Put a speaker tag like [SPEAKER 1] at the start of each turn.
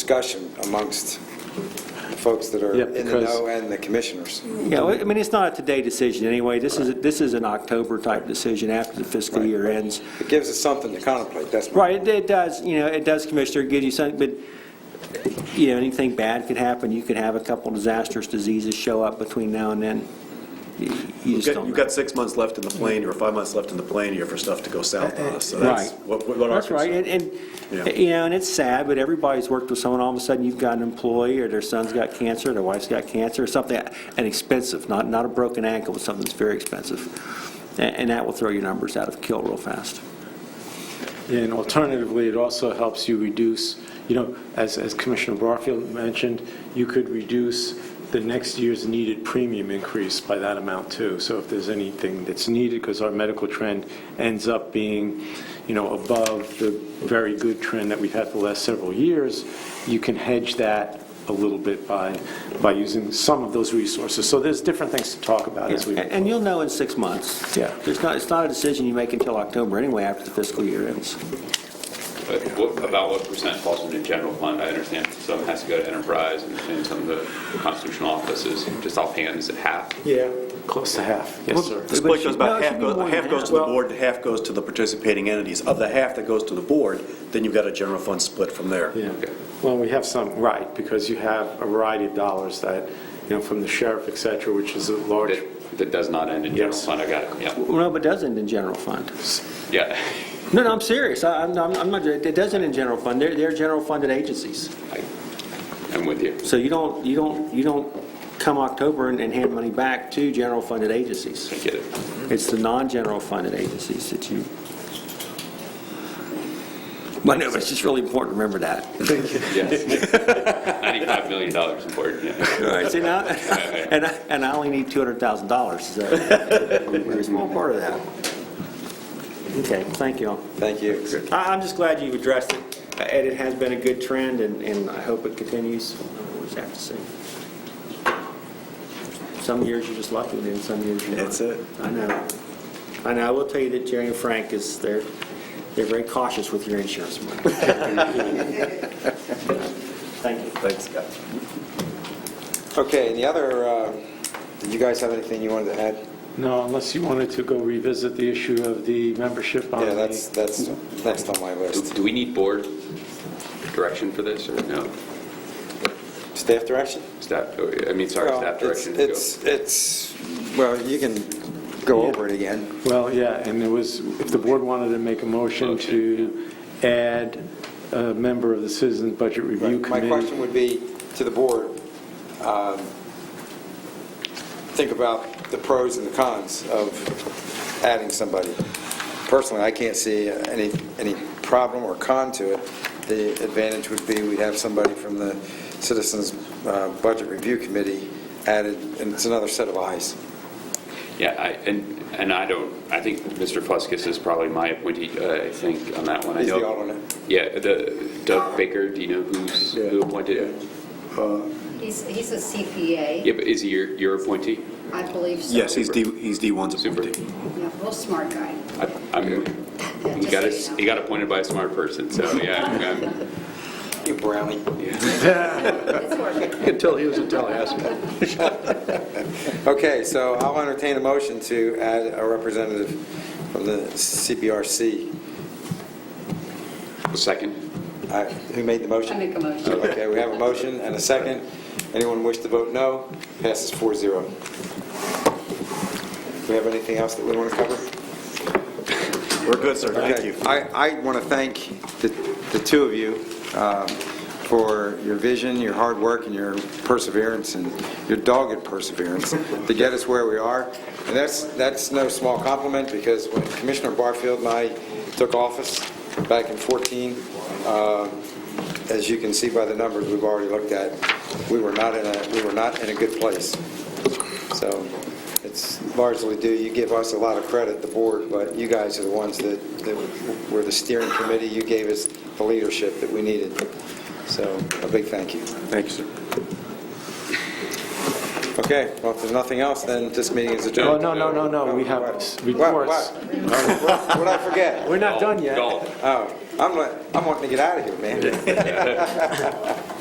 [SPEAKER 1] discussion amongst the folks that are
[SPEAKER 2] Yeah,
[SPEAKER 1] in the
[SPEAKER 2] because-
[SPEAKER 1] know and the commissioners.
[SPEAKER 2] Yeah, well, I mean, it's not a today decision anyway. This is, this is an October-type decision after the fiscal
[SPEAKER 1] Right.
[SPEAKER 2] year ends.
[SPEAKER 1] It gives us something to contemplate, that's my...
[SPEAKER 2] Right, it- it does, you know, it does, Commissioner, give you something, but, you know, anything bad could happen. You could have a couple disastrous diseases show up between now and then. You- You
[SPEAKER 3] You've
[SPEAKER 2] just
[SPEAKER 3] got,
[SPEAKER 2] don't
[SPEAKER 3] you've
[SPEAKER 2] know.
[SPEAKER 3] got six months left in the plane, or five months left in the plane here for stuff to go south on us, so that's
[SPEAKER 2] Right.
[SPEAKER 3] what, what our
[SPEAKER 2] That's right,
[SPEAKER 3] concern.
[SPEAKER 2] and, and,
[SPEAKER 3] Yeah.
[SPEAKER 2] you know, and it's sad, but everybody's worked with someone, all of a sudden you've got an employee, or their son's got cancer, their wife's got cancer, or something, and expensive, not, not a broken ankle, but something that's very expensive. And, and that will throw your numbers out of kill real fast.
[SPEAKER 4] And alternatively, it also helps you reduce, you know, as as Commissioner Barfield mentioned, you could reduce the next year's needed premium increase by that amount, too. So if there's anything that's needed, because our medical trend ends up being, you know, above the very good trend that we've had the last several years, you can hedge that a little bit by, by using some of those resources. So there's different things to talk about as we.
[SPEAKER 2] And and you'll know in six months.
[SPEAKER 4] Yeah.
[SPEAKER 2] It's not, it's not a decision you make until October anyway, after the fiscal year ends.
[SPEAKER 5] But what, about what percent falls into general fund? I understand some has to go to enterprise and, and some of the constitutional offices, just offhand, is it half?
[SPEAKER 4] Yeah. Close to half, yes, sir.
[SPEAKER 3] The
[SPEAKER 2] But it
[SPEAKER 3] split goes
[SPEAKER 2] should- no,
[SPEAKER 3] about,
[SPEAKER 2] it should be
[SPEAKER 3] half
[SPEAKER 2] more
[SPEAKER 3] goes,
[SPEAKER 2] than
[SPEAKER 3] half goes
[SPEAKER 2] half.
[SPEAKER 3] to the board, and half goes to the participating entities. Of the half that goes to the board, then you've got a general fund split from there.
[SPEAKER 4] Yeah, well, we have some, right, because you have a variety of dollars that, you know, from the sheriff, et cetera, which is a large,
[SPEAKER 5] That, that does not end in general
[SPEAKER 4] Yes.
[SPEAKER 5] fund, I got it, yeah,
[SPEAKER 2] Well, no, but it doesn't in general fund.
[SPEAKER 5] yeah.
[SPEAKER 2] No, no, I'm serious. I- I'm, I'm I'm not, it doesn't in general fund. They're, they're general funded agencies.
[SPEAKER 5] I- I'm with you.
[SPEAKER 2] So you don't, you don't, you don't come October and and hand money back to general funded agencies.
[SPEAKER 5] I get it.
[SPEAKER 2] It's the non-general funded agencies that you. But no, but it's just really important to remember that.
[SPEAKER 5] Yes. $95 million in board, yeah.
[SPEAKER 2] All right, see now, and I, and I only need $200,000, so we're a small part of that. Okay, thank you all.
[SPEAKER 1] Thank you.
[SPEAKER 2] I, I'm just glad you've addressed it, and it has been a good trend, and, and I hope it continues. We'll just have to see. Some years you're just lucky, and then some years you're not.
[SPEAKER 3] That's it.
[SPEAKER 2] I know. I know, I will tell you that Jerry and Frank is, they're, they're very cautious with your insurance money. Thank you.
[SPEAKER 3] Thanks, Scott.
[SPEAKER 1] Okay, and the other, uh, did you guys have anything you wanted to add?
[SPEAKER 4] no, unless you wanted to go revisit the issue of the membership on
[SPEAKER 2] Um,
[SPEAKER 1] Yeah, that's,
[SPEAKER 4] the,
[SPEAKER 1] that's next on my
[SPEAKER 5] Do
[SPEAKER 1] list.
[SPEAKER 5] do we need board direction for this, or no?
[SPEAKER 1] Staff direction?
[SPEAKER 5] Staff, oh, I mean, sorry,
[SPEAKER 1] Well,
[SPEAKER 5] staff
[SPEAKER 1] it's-
[SPEAKER 5] direction? to go.
[SPEAKER 1] It's, it's, well, you can go over it again.
[SPEAKER 4] well, yeah, and it was, if the board wanted to make a motion
[SPEAKER 5] Motion,
[SPEAKER 4] to add a member of the Citizens Budget Review
[SPEAKER 1] Right. My question
[SPEAKER 4] Committee.
[SPEAKER 1] would be to the board, um, think about the pros and the cons of adding somebody. Personally, I can't see any, any problem or con to it. The advantage would be we'd have somebody from the Citizens uh, Budget Review Committee added, and it's another set of eyes.
[SPEAKER 5] Yeah, I, and, and I don't, I think Mr. Fuskis is probably my appointee, uh, I think, on that one. I
[SPEAKER 1] He's the
[SPEAKER 5] know-
[SPEAKER 1] alternate.
[SPEAKER 5] Yeah, the, Doug Baker, do you know who's, who appointed?
[SPEAKER 6] He's, he's a CPA,
[SPEAKER 5] Yeah, but is he your, your appointee?
[SPEAKER 6] I believe so.
[SPEAKER 3] Yes, he's D, he's D1's
[SPEAKER 5] Super.
[SPEAKER 3] appointee.
[SPEAKER 6] Yeah, real smart guy.
[SPEAKER 5] I- I'm,
[SPEAKER 6] Yeah,
[SPEAKER 5] he
[SPEAKER 6] just
[SPEAKER 5] got,
[SPEAKER 6] so
[SPEAKER 5] us-
[SPEAKER 6] you know.
[SPEAKER 5] he got appointed by a smart person, so, yeah. I'm- I'm-
[SPEAKER 1] You brownie.
[SPEAKER 6] It's working.
[SPEAKER 3] You can tell he was in Tallahassee.
[SPEAKER 1] Okay, so I'll entertain a motion to add a representative from the CBRC.
[SPEAKER 5] Second?
[SPEAKER 1] I- uh, Who made the motion?
[SPEAKER 6] I make a motion.
[SPEAKER 1] Okay, we have a motion and a second. Anyone wish to vote no? Passes 4-0. Do we have anything else that we want to cover?
[SPEAKER 3] We're good, sir, thank
[SPEAKER 1] Okay.
[SPEAKER 3] you.
[SPEAKER 1] I, I want to thank the, the two of you um, for your vision, your hard work, and your perseverance, and your dogged perseverance to get us where we are. And that's, that's no small compliment, because when Commissioner Barfield and I took office back in 14, um, as you can see by the numbers we've already looked at, we were not in a, we were not in a good place. So it's largely due, you give us a lot of credit, the board, but you guys are the ones that, that were the steering committee. You gave us the leadership that we needed. So a big thank you.
[SPEAKER 3] Thank you, sir.
[SPEAKER 1] Okay, well, if there's nothing else, then this meeting is
[SPEAKER 4] Oh,
[SPEAKER 1] adjourned.
[SPEAKER 4] no, no, no, no, we have
[SPEAKER 1] What?
[SPEAKER 4] reports.
[SPEAKER 1] What? What did I forget?
[SPEAKER 4] We're not done yet.
[SPEAKER 5] Golf.
[SPEAKER 1] Oh, I'm, like- I'm wanting to get out of here, man.